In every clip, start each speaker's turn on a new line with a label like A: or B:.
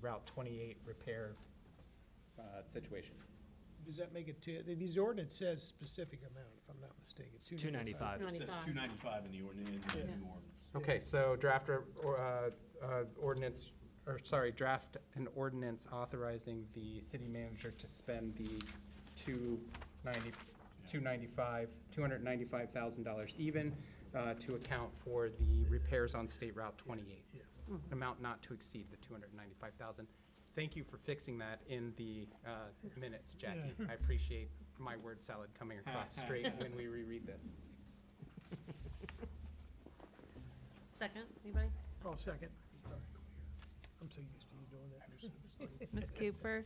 A: Route 28 repair uh, situation.
B: Does that make it two, the ordinance says specific amount, if I'm not mistaken.
C: It's 295.
D: It says
E: 95.
D: 295 in the ordinance, in the
E: Yes.
D: new ordinance.
A: Okay, so draft or- or, uh, uh, ordinance, or sorry, draft an ordinance authorizing the city manager to spend the 290 295, $295,000 even uh, to account for the repairs on State Route 28. Amount not to exceed the 295,000. Thank you for fixing that in the uh, minutes, Jackie. I appreciate my word salad coming across straight when we reread this.
E: Second, anybody?
B: Oh, second. I'm so used to you doing that.
F: Ms. Cooper?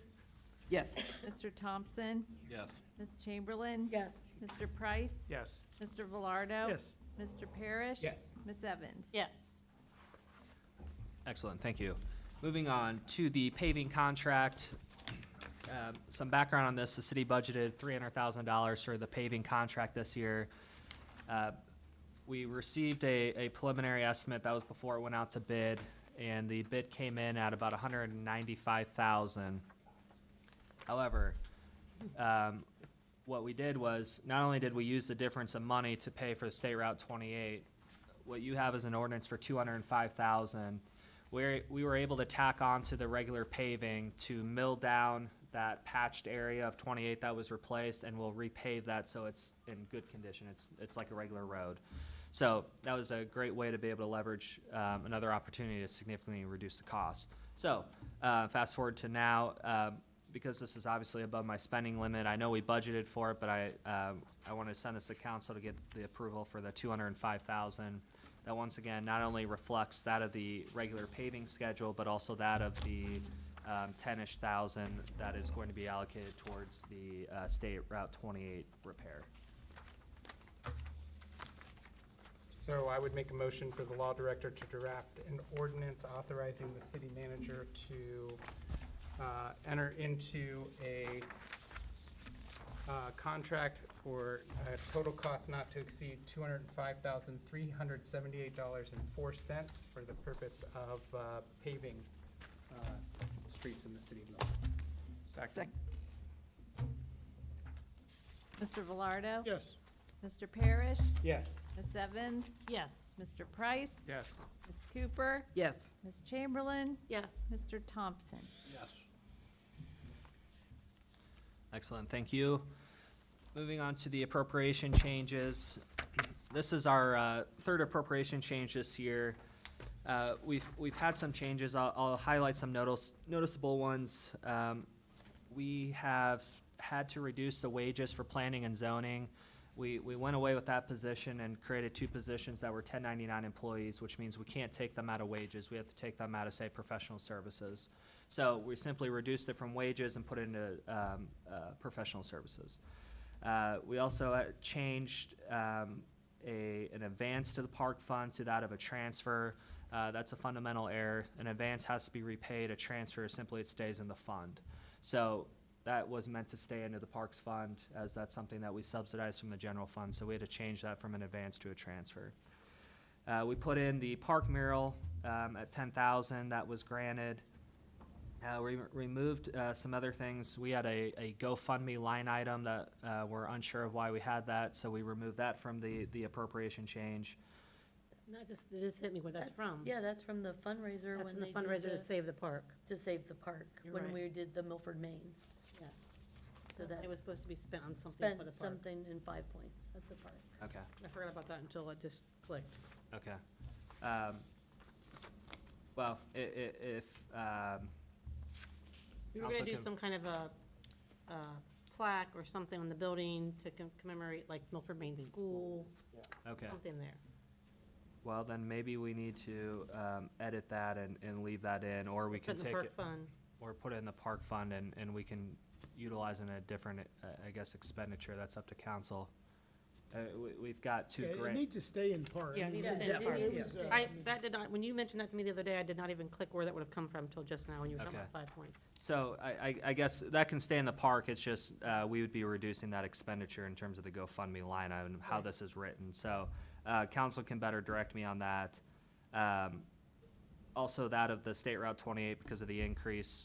A: Yes.
F: Mr. Thompson?
D: Yes.
F: Ms. Chamberlain?
E: Yes.
F: Mr. Price?
A: Yes.
F: Mr. Velardo?
B: Yes.
F: Mr. Parrish?
A: Yes.
F: Ms. Evans?
E: Yes.
C: Excellent, thank you. Moving on to the paving contract. Um, Some background on this, the city budgeted $300,000 for the paving contract this year. Uh, We received a a preliminary estimate, that was before it went out to bid, and the bid came in at about $195,000. However, um, what we did was, not only did we use the difference of money to pay for State Route 28, what you have is an ordinance for 205,000. We're, we were able to tack on to the regular paving to mill down that patched area of 28 that was replaced, and we'll repave that so it's in good condition. It's, it's like a regular road. So that was a great way to be able to leverage um, another opportunity to significantly reduce the cost. So uh, fast forward to now, um, because this is obviously above my spending limit, I know we budgeted for it, but I, um, I want to send this to council to get the approval for the two hundred and five thousand. That once again, not only reflects that of the regular paving schedule, but also that of the, um, ten-ish thousand that is going to be allocated towards the, uh, state Route twenty-eight repair.
A: So I would make a motion for the law director to draft an ordinance authorizing the city manager to uh, enter into a uh, contract for a total cost not to exceed two hundred and five thousand, three hundred and seventy-eight dollars and four cents for the purpose of uh, paving uh, streets in the city of Millville. Second.
F: Mr. Velardo?
B: Yes.
F: Mr. Parrish?
A: Yes.
F: Ms. Evans?
E: Yes.
F: Mr. Price?
A: Yes.
F: Ms. Cooper?
E: Yes.
F: Ms. Chamberlain?
E: Yes.
F: Mr. Thompson?
C: Excellent, thank you. Moving on to the appropriation changes. This is our uh, third appropriation change this year. Uh, We've, we've had some changes. I'll, I'll highlight some notice- noticeable ones. Um, We have had to reduce the wages for planning and zoning. We, we went away with that position and created two positions that were 1099 employees, which means we can't take them out of wages. We have to take them out of, say, professional services. So we simply reduced it from wages and put it into um, uh, professional services. Uh, We also uh, changed um, a, an advance to the park fund to that of a transfer. Uh, That's a fundamental error. An advance has to be repaid, a transfer simply it stays in the fund. So that was meant to stay into the parks fund, as that's something that we subsidize from the general fund, so we had to change that from an advance to a transfer. Uh, we put in the park mural, um, at ten thousand, that was granted. Uh, we re- removed, uh, some other things. We had a, a GoFundMe line item that, uh, we're unsure of why we had that, so we removed that from the, the appropriation change.
G: Not just, it just hit me where that's from.
E: Yeah, that's from the fundraiser
G: That's
E: when
G: from the
E: they did
G: fundraiser to
E: the,
G: save the park.
E: to save the park,
G: You're
E: when
G: right.
E: we did the Milford, Maine.
G: Yes.
E: So that
G: It was supposed to be spent on something
E: spent
G: for the park.
E: something in five points at the park.
C: Okay.
G: I forgot about that until it just clicked.
C: Okay. Um, well, i- i- if, um,
G: We were
C: Also
G: gonna do
C: com-
G: some kind of a, a plaque or something on the building to com- commemorate like Milford Main School,
C: okay.
G: something there.
C: Well, then maybe we need to, um, edit that and, and leave that in, or we can
G: Put in the
C: take
G: park
C: it,
G: fund.
C: or put it in the park fund and, and we can utilize in a different, uh, I guess expenditure, that's up to council. Uh, we, we've got two
B: Yeah, it
C: grant,
B: needs to stay in park.
G: Yeah, it needs to stay in
B: That
E: park.
B: is,
E: Yes.
B: uh,
G: I, that did not, when you mentioned that to me the other day, I did not even click where that would have come from till just now when you were talking
C: Okay.
G: about five points.
C: so I, I, I guess that can stay in the park, it's just, uh, we would be reducing that expenditure in terms of the GoFundMe line item, how
G: Right.
C: this is written, so, uh, council can better direct me on that. Um, also that of the State Route 28 because of the increase